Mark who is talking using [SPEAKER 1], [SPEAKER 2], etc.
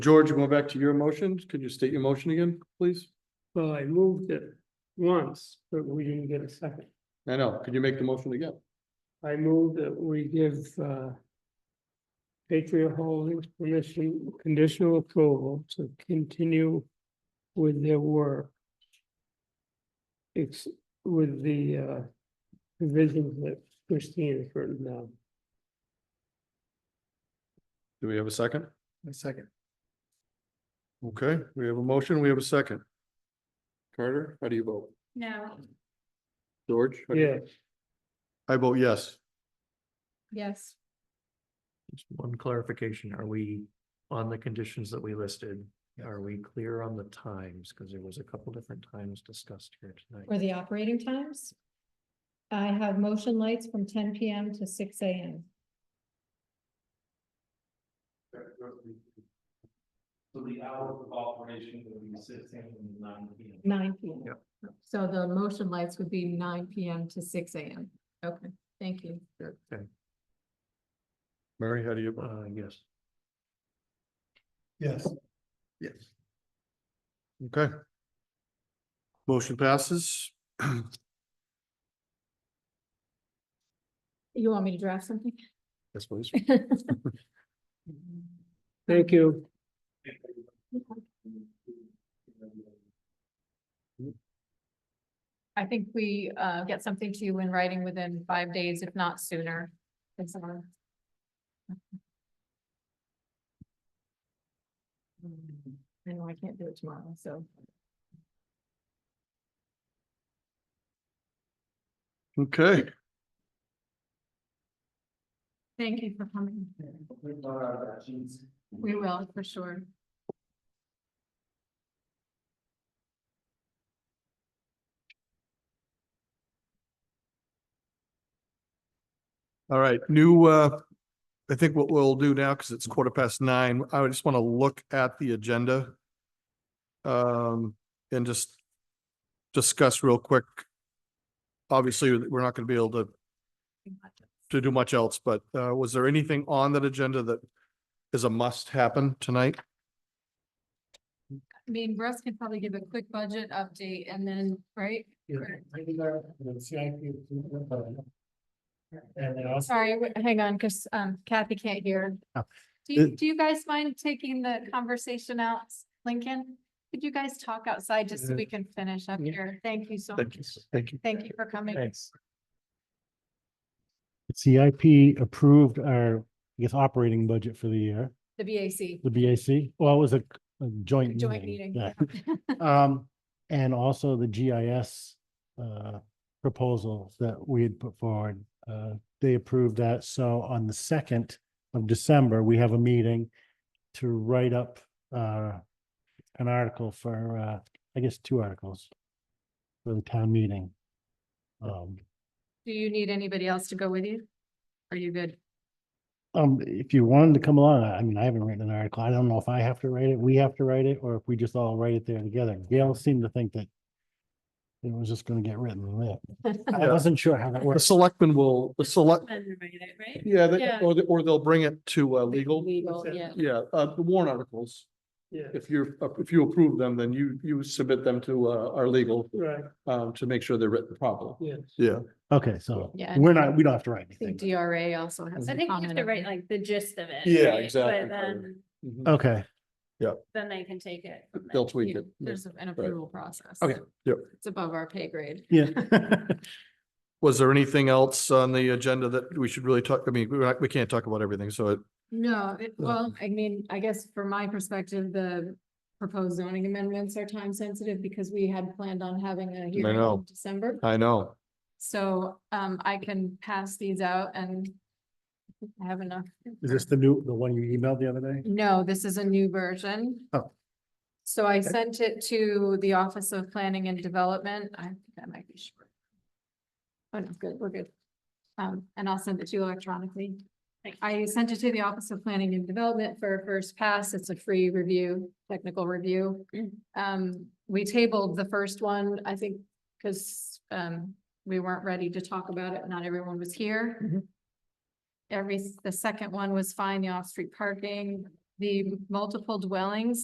[SPEAKER 1] George, going back to your motions, could you state your motion again, please?
[SPEAKER 2] Well, I moved it once, but we didn't get a second.
[SPEAKER 1] I know, could you make the motion again?
[SPEAKER 2] I moved that we give uh. Patriot Holdings permission, conditional approval to continue with their work. It's with the uh provisions that Christine has written down.
[SPEAKER 1] Do we have a second?
[SPEAKER 2] A second.
[SPEAKER 1] Okay, we have a motion, we have a second. Carter, how do you vote?
[SPEAKER 3] No,
[SPEAKER 1] George? how do you-
[SPEAKER 2] Yes,
[SPEAKER 1] I vote yes.
[SPEAKER 3] yes,
[SPEAKER 4] Just one clarification, are we on the conditions that we listed? Are we clear on the times? Because there was a couple different times discussed here
[SPEAKER 3] or
[SPEAKER 4] tonight.
[SPEAKER 3] the operating times. I have motion lights from ten PM to six AM.
[SPEAKER 5] So the hours of operation will be six AM and nine PM.
[SPEAKER 3] Nine PM.
[SPEAKER 4] Yep.
[SPEAKER 3] So the motion lights would be nine PM to six AM. Okay, thank you.
[SPEAKER 4] Okay,
[SPEAKER 1] Mary, how do you vote?
[SPEAKER 4] uh, yes,
[SPEAKER 5] Yes.
[SPEAKER 1] Yes. Okay. Motion passes.
[SPEAKER 3] You want me to draft something?
[SPEAKER 1] Yes, please.
[SPEAKER 2] thank you.
[SPEAKER 3] I think we uh get something to you in writing within five days, if not sooner. It's on. Mm, I know I can't do it tomorrow, so.
[SPEAKER 1] Okay,
[SPEAKER 3] Thank you for coming. We will, for sure.
[SPEAKER 1] all right, new, uh, I think what we'll do now, because it's quarter past nine, I just want to look at the agenda. Um, and just discuss real quick. Obviously, we're not going to be able to to do much else, but uh, was there anything on that agenda that is a must happen tonight?
[SPEAKER 3] I mean, Russ can probably give a quick budget update and then, right?
[SPEAKER 5] And then also.
[SPEAKER 3] Sorry, wait, hang on, because um Kathy can't hear.
[SPEAKER 4] Oh.
[SPEAKER 3] Do you,
[SPEAKER 1] It-
[SPEAKER 3] do you guys mind taking the conversation out, Lincoln? Could you guys talk outside just so we can finish up
[SPEAKER 2] Yeah.
[SPEAKER 3] here? Thank you so
[SPEAKER 4] Thank
[SPEAKER 3] much.
[SPEAKER 4] you. Thank you.
[SPEAKER 3] Thank you for coming.
[SPEAKER 4] Thanks.
[SPEAKER 6] CIP approved our, I guess, operating budget for the year,
[SPEAKER 3] The BAC
[SPEAKER 6] the BAC. Well, it was a a joint
[SPEAKER 3] joint meeting.
[SPEAKER 6] meeting. yeah. Um, and also the GIS uh proposals that we had put forward. Uh, they approved that. So on the second of December, we have a meeting to write up uh an article for, uh, I guess, two articles for the town meeting. Um,
[SPEAKER 3] Do you need anybody else to go with you? Are you good?
[SPEAKER 6] Um, if you wanted to come along, I I mean, I haven't written an article. I don't know if I have to write it, we have to write it, or if we just all write it there together. Gail seemed to think that it was just gonna get written and lit. I wasn't sure how that
[SPEAKER 1] The
[SPEAKER 6] works.
[SPEAKER 1] selectmen will, the select,
[SPEAKER 3] Right?
[SPEAKER 1] yeah, they-
[SPEAKER 3] Yeah.
[SPEAKER 1] or, they- or they'll bring it to uh, legal.
[SPEAKER 3] Legal, yeah.
[SPEAKER 1] Yeah, uh, the warrant articles.
[SPEAKER 2] Yeah,
[SPEAKER 1] If you're, if you approve them, then you, you submit them to uh, our legal
[SPEAKER 2] right,
[SPEAKER 1] um, to make sure they're written properly.
[SPEAKER 2] yes.
[SPEAKER 1] Yeah.
[SPEAKER 6] Okay, so
[SPEAKER 3] Yeah.
[SPEAKER 6] we're not, we don't have to write
[SPEAKER 3] I think
[SPEAKER 6] anything.
[SPEAKER 3] DRA also has.
[SPEAKER 7] I
[SPEAKER 3] a
[SPEAKER 7] think you have
[SPEAKER 3] comment
[SPEAKER 7] to
[SPEAKER 3] on
[SPEAKER 7] write
[SPEAKER 3] that.
[SPEAKER 7] like the gist of it.
[SPEAKER 1] Yeah,
[SPEAKER 7] right?
[SPEAKER 1] exactly.
[SPEAKER 7] But then,
[SPEAKER 1] Mhm.
[SPEAKER 6] Okay,
[SPEAKER 7] then they can take it. from there.
[SPEAKER 1] They'll tweak
[SPEAKER 3] Yeah,
[SPEAKER 1] it. Yeah.
[SPEAKER 3] There's an approval process.
[SPEAKER 1] Okay, yep.
[SPEAKER 3] It's above our pay grade.
[SPEAKER 6] yeah.
[SPEAKER 1] Was there anything else on the agenda that we should really talk, I mean, we're not- we can't talk about everything, so it,
[SPEAKER 3] No, it,
[SPEAKER 1] Yeah.
[SPEAKER 3] well, I mean, I guess from my perspective, the proposed zoning amendments are time sensitive because we had planned on having a hearing in
[SPEAKER 1] know.
[SPEAKER 3] December.
[SPEAKER 1] I know.
[SPEAKER 3] So, um, I can pass these out and I have enough.
[SPEAKER 6] Is this the new, the one you emailed the other day?
[SPEAKER 3] No, this is a new version.
[SPEAKER 6] Oh.
[SPEAKER 3] So I sent it to the Office of Planning and Development. I think that might be short. Oh, no, good, we're good. Um, and I'll send it to you electronically.
[SPEAKER 7] Thank you.
[SPEAKER 3] I sent it to the Office of Planning and Development for a first pass. It's a free review, technical review.
[SPEAKER 7] Mm.
[SPEAKER 3] Um, we tabled the first one, I think, because, um, we weren't ready to talk about it. Not everyone was here. Every, the second one was fine, the off-street parking. the multiple dwellings